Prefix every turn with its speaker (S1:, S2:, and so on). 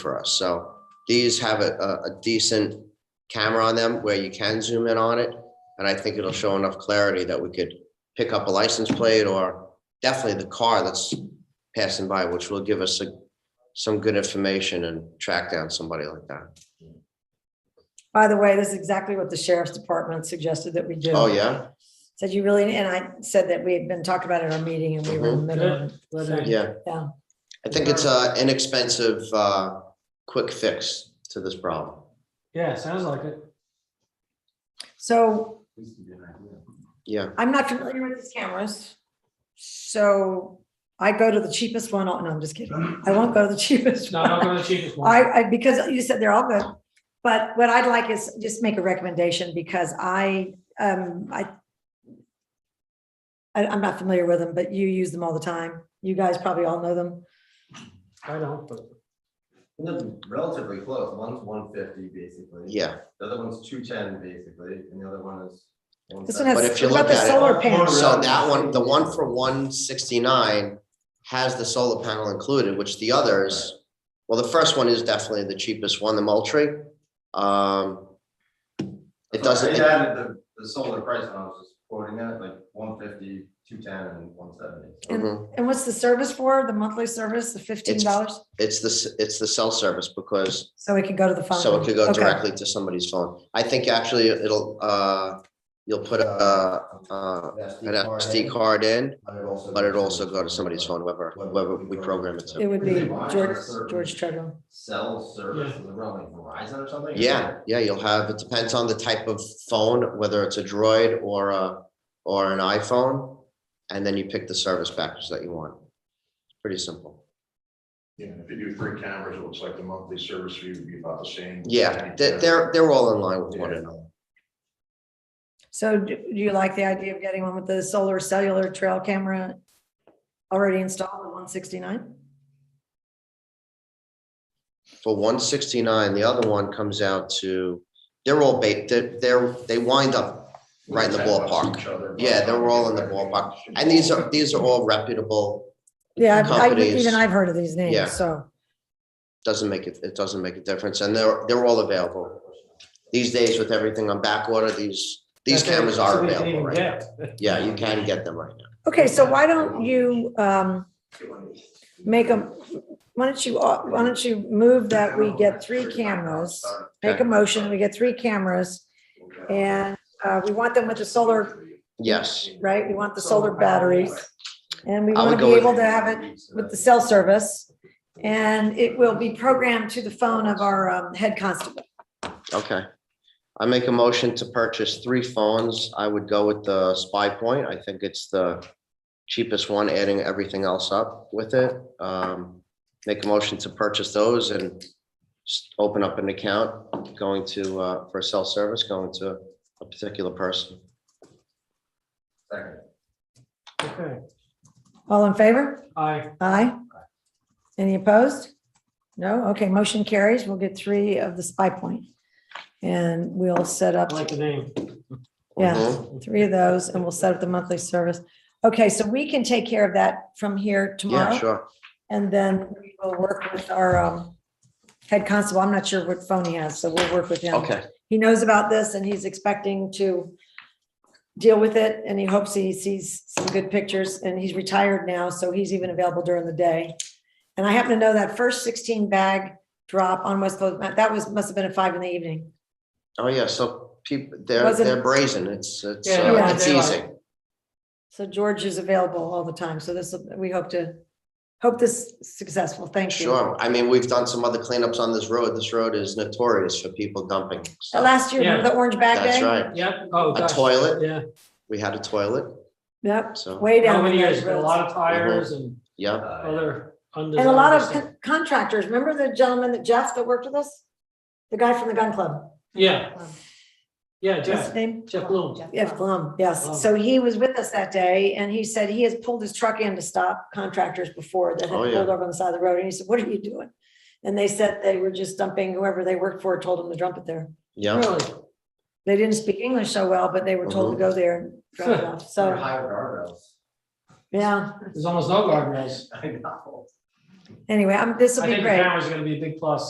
S1: for us. So these have a, a- a decent camera on them where you can zoom in on it. And I think it'll show enough clarity that we could pick up a license plate or definitely the car that's passing by, which will give us a- some good information and track down somebody like that.
S2: By the way, this is exactly what the sheriff's department suggested that we do.
S1: Oh, yeah?
S2: Said you really, and I said that we had been talking about it at our meeting and we were in the middle of it.
S3: Mm-hmm. Good.
S2: So,
S1: Yeah.
S2: Yeah.
S1: I think it's a inexpensive, uh, quick fix to this problem.
S3: Yeah, sounds like it.
S2: So
S1: Yeah,
S2: I'm not familiar with these cameras. So I go to the cheapest one. Oh, No, I'm just kidding. I won't go to the cheapest
S3: No, not
S2: one.
S3: going to the cheapest one.
S2: I, I, because you said they're all good. But what I'd like is just make a recommendation because I, um, I, I, I'm not familiar with them, but you use them all the time. You guys probably all know them.
S3: I don't, but
S4: And they're relatively close, one's one fifty basically.
S1: yeah.
S4: The other one's two ten basically, and the other one is.
S2: This one
S4: 170.
S2: has,
S1: But if you
S2: what about
S1: look
S2: the
S1: at it-
S2: solar panels?
S1: So that one, the one for one sixty-nine has the solar panel included, which the others, well, the first one is definitely the cheapest one, the Moultrie. Um, it doesn't-
S4: They added the, the solar price, and I was just quoting that, like 150, 210, and one seventy.
S1: mhm.
S2: And what's the service for, the monthly service, the fifteen dollars?
S1: It's the, s- it's the cell service because,
S2: So it can go to the phone?
S1: so it could go
S2: Okay.
S1: directly to somebody's phone. I think actually it'll, uh, you'll put a, uh, an SD card in, but it'll also go to somebody's phone, whoever, whoever we program it
S2: It
S1: to.
S2: would be
S4: Really wide
S2: George,
S4: service.
S2: George Treadwell.
S4: Cell service, is around like Verizon or something?
S1: Yeah, yeah, you'll have, it depends on the type of phone, whether it's a Droid or a, or an iPhone. And then you pick the service package that you want. Pretty simple.
S5: Yeah, if you do three cameras, it looks like the monthly service fee would be about the same.
S1: Yeah, they're, they're, they're all in line with one another.
S2: So do do you like the idea of getting one with the solar cellular trail camera already installed at one sixty-nine?
S1: For one sixty-nine, the other one comes out to, they're all bait, they're, they're, they wind up right in the ballpark. Yeah, they're all in the ballpark. And these are, these are all reputable,
S2: Yeah, I- I-
S1: Companies.
S2: even I've heard of these
S1: Yeah.
S2: names, so.
S1: doesn't make it, it doesn't make a difference, and they're, they're all available. These days with everything on back order, these, these
S3: that's it.
S1: cameras are
S3: So we can
S1: available
S3: even
S1: right now.
S3: get-
S1: Yeah, you can get them right now.
S2: Okay, so why don't you um make them, why don't you, uh, why don't you move that we get three cameras? Make a motion, we get three cameras and uh, we want them with the solar,
S1: Yes,
S2: right? We want the solar batteries. And we
S1: I
S2: want
S1: would
S2: to
S1: go
S2: be
S1: with-
S2: able to have it with the cell service. And it will be programmed to the phone of our um, head constable.
S1: okay. I make a motion to purchase three phones. I would go with the Spy Point. I think it's the cheapest one, adding everything else up with it. Um, Make a motion to purchase those and s- open up an account going to, uh, for cell service, going to a particular person.
S4: Second.
S3: Okay,
S2: All in favor?
S3: I,
S2: Aye. Any opposed? No? Okay, motion carries. We'll get three of the spy point. And we'll set up,
S3: I like the name.
S2: Yeah.
S1: Mhm.
S2: three of those and we'll set up the monthly service. Okay, so we can take care of that from here
S1: Yeah,
S2: tomorrow.
S1: sure.
S2: And then we will work with our um, head constable. I'm not sure what phone he has, so we'll work with him.
S1: Okay,
S2: He knows about this and he's expecting to deal with it and he hopes he sees some good pictures and he's retired now, so he's even available during the day. And I happen to know that first sixteen bag drop on West Coast, that was, must have been at five in the evening.
S1: oh, yeah, so people, they're,
S2: Wasn't-
S1: they're brazen. It's, it's,
S3: Yeah,
S1: uh,
S2: yeah,
S1: it's
S3: they are.
S1: easy.
S2: So George is available all the time, so this, we hope to, hope this is successful. Thank you.
S1: Sure, I mean, we've done some other cleanups on this road, this road is notorious for people dumping.
S2: Uh,
S1: stuff.
S2: Last year, remember the orange bag
S1: That's
S2: day?
S1: right,
S3: Yep, oh,
S1: a
S3: gosh.
S1: toilet,
S3: Yeah,
S1: we had a toilet,
S2: Yep,
S1: so,
S2: way down.
S3: how many
S2: in
S3: years,
S2: those
S3: a
S2: roads.
S3: lot of tires
S1: Mm-hmm.
S3: and
S1: yeah,
S4: Uh,
S3: other
S2: And a lot
S3: undesirable
S2: of
S3: stuff.
S2: con- contractors, remember the gentleman that Jeff that worked with us? The guy from the gun club?
S3: Yeah. Yeah,
S2: What's
S3: Jeff,
S2: his name?
S3: Jeff Bloom.
S2: Jeff Blum, yes. So he was with us that day and he said he has pulled his truck in to stop contractors before that had
S1: Oh,
S2: pulled
S1: yeah.
S2: over on the side of the road. And he said, what are you doing? And they said they were just dumping whoever they worked for, told them to dump it there.
S1: yeah.
S3: Really?
S2: They didn't speak English so well, but they were told to
S1: Uh-huh.
S2: go there and drop it off.
S4: they're
S2: So,
S4: higher guardrails.
S2: yeah.
S3: There's almost no guardrails.
S4: I know.
S2: Anyway, I'm, this
S3: I
S2: will be
S3: think the
S2: great.
S3: camera's gonna be a big plus.